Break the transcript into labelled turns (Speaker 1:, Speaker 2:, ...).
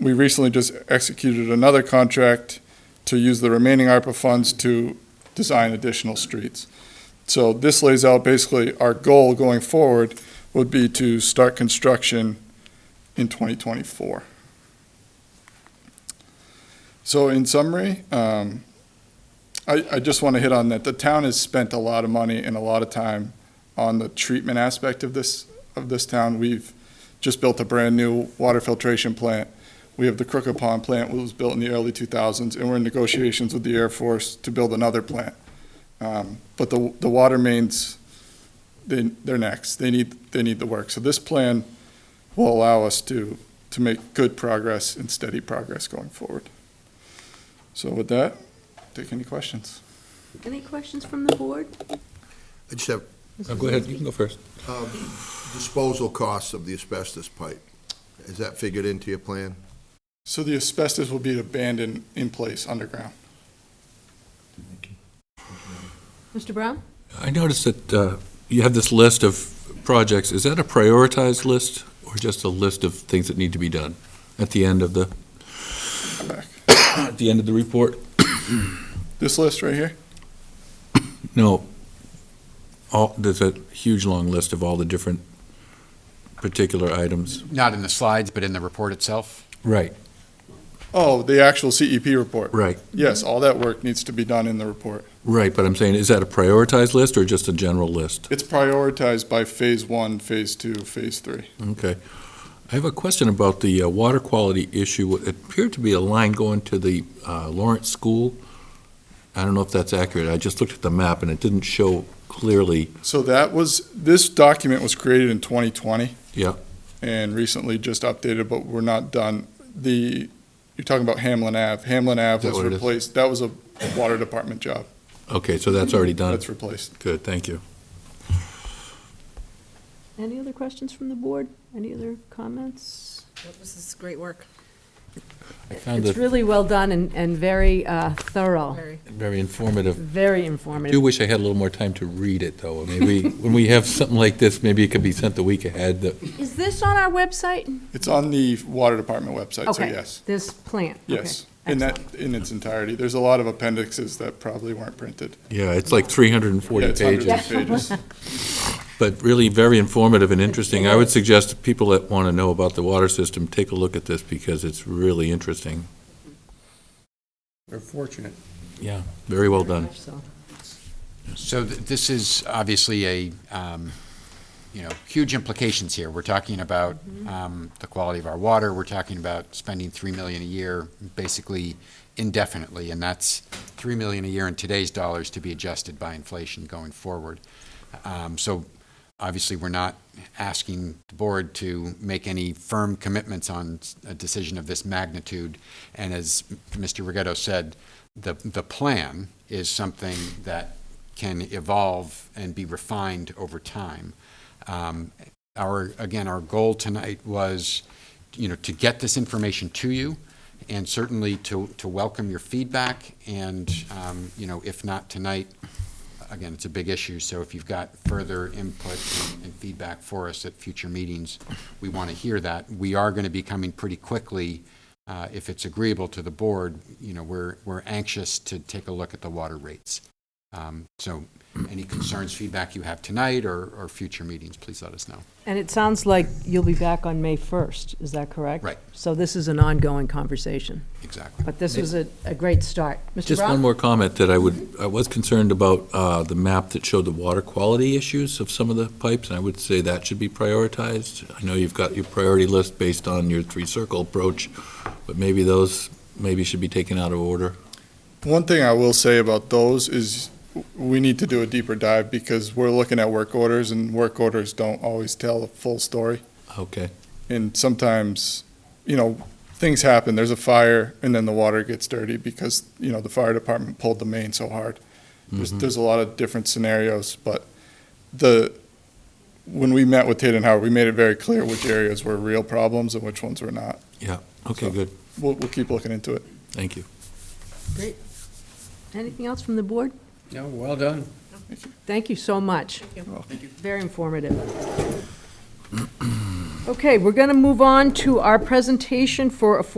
Speaker 1: we recently just executed another contract to use the remaining ARPA funds to design additional streets. So this lays out basically our goal going forward would be to start construction in 2024. So in summary, um, I, I just want to hit on that. The town has spent a lot of money and a lot of time on the treatment aspect of this, of this town. We've just built a brand-new water filtration plant. We have the Crooked Pond plant, which was built in the early 2000s, and we're in negotiations with the Air Force to build another plant. Um, But the, the water mains, they, they're next. They need, they need the work. So this plan will allow us to, to make good progress and steady progress going forward. So with that, take any questions.
Speaker 2: Any questions from the board?
Speaker 3: I just have
Speaker 4: Oh, Go ahead, you can go first.
Speaker 3: um, disposal costs of the asbestos pipe. Is that figured into your plan?
Speaker 1: So the asbestos will be abandoned in place underground.
Speaker 2: Mr. Brown?
Speaker 4: I noticed that uh, you have this list of projects. Is that a prioritized list or just a list of things that need to be done at the end of the,
Speaker 1: Back.
Speaker 4: at the end of the report?
Speaker 1: This list right here?
Speaker 4: No. All, there's a huge long list of all the different particular items.
Speaker 5: Not in the slides, but in the report itself?
Speaker 4: Right.
Speaker 1: Oh, the actual CEP report.
Speaker 4: Right,
Speaker 1: Yes, all that work needs to be done in the report.
Speaker 4: right, but I'm saying, is that a prioritized list or just a general list?
Speaker 1: It's prioritized by phase one, phase two, phase three.
Speaker 4: Okay. I have a question about the uh, water quality issue. It appeared to be a line going to the uh, Lawrence School. I don't know if that's accurate. I just looked at the map and it didn't show clearly.
Speaker 1: So that was, this document was created in 2020.
Speaker 4: Yeah.
Speaker 1: And recently just updated, but we're not done. The, you're talking about Hamlin Ave. Hamlin Ave
Speaker 4: that
Speaker 1: was
Speaker 4: what it is?
Speaker 1: replaced, that was a water department job.
Speaker 4: Okay, so that's already done.
Speaker 1: That's replaced.
Speaker 4: Good, thank you.
Speaker 2: Any other questions from the board? Any other comments?
Speaker 6: This is great work,
Speaker 4: I found
Speaker 2: It's
Speaker 4: it
Speaker 2: really well done and, and very uh, thorough,
Speaker 6: very.
Speaker 4: very informative.
Speaker 2: very
Speaker 4: I do
Speaker 2: informative.
Speaker 4: wish I had a little more time to read it, though. Maybe, when we have something like this, maybe it could be sent the week ahead. that-
Speaker 2: Is this on our website?
Speaker 1: It's on the water department website, so
Speaker 2: Okay.
Speaker 1: yes.
Speaker 2: This plant? okay,
Speaker 1: Yes, in that, in its entirety. There's a lot of appendixes that probably weren't printed.
Speaker 4: Yeah, it's like 340
Speaker 1: Yeah, it's hundreds
Speaker 4: pages.
Speaker 1: of
Speaker 2: pages.
Speaker 1: pages.
Speaker 4: But really very informative and interesting. I would suggest to people that want to know about the water system, take a look at this because it's really interesting.
Speaker 5: They're fortunate.
Speaker 4: Yeah. Very well done.
Speaker 2: excellent. So,
Speaker 5: So th- this is obviously a, um, you know, huge implications here. We're talking about um, the quality of our water, we're talking about spending 3 million a year basically indefinitely, and that's 3 million a year in today's dollars to be adjusted by inflation going forward. Um, So obviously, we're not asking the board to make any firm commitments on s- a decision of this magnitude. And as Mr. Rigetto said, the, the plan is something that can evolve and be refined over time. Um, Our, again, our goal tonight was, you know, to get this information to you and certainly to, to welcome your feedback. And, um, you know, if not tonight, again, it's a big issue, so if you've got further input and feedback for us at future meetings, we want to hear that. We are going to be coming pretty quickly, uh, if it's agreeable to the board, you know, we're, we're anxious to take a look at the water rates. Um, So any concerns, feedback you have tonight or, or future meetings, please let us know.
Speaker 2: And it sounds like you'll be back on May 1st, is that correct?
Speaker 5: Right.
Speaker 2: So this is an ongoing conversation,
Speaker 5: Exactly.
Speaker 2: but this was a, a great start. Mr.
Speaker 4: Just one
Speaker 2: Brown?
Speaker 4: more comment that I would, I was concerned about uh, the map that showed the water quality issues of some of the pipes, and I would say that should be prioritized. I know you've got your priority list based on your three-circle approach, but maybe those, maybe should be taken out of order.
Speaker 1: One thing I will say about those is we need to do a deeper dive because we're looking at work orders and work orders don't always tell the full story.
Speaker 4: Okay.
Speaker 1: And sometimes, you know, things happen. There's a fire and then the water gets dirty because, you know, the fire department pulled the main so hard. There's, there's a lot of different scenarios, but the, when we met with Tate and Howard, we made it very clear which areas were real problems and which ones were not.
Speaker 4: Yeah, okay, good,
Speaker 1: We'll, we'll keep looking into it.
Speaker 4: thank you.
Speaker 2: Anything else from the board?
Speaker 7: No, well done.
Speaker 2: Thank you so much. Very informative. Okay, we're going to move on to our presentation for affordable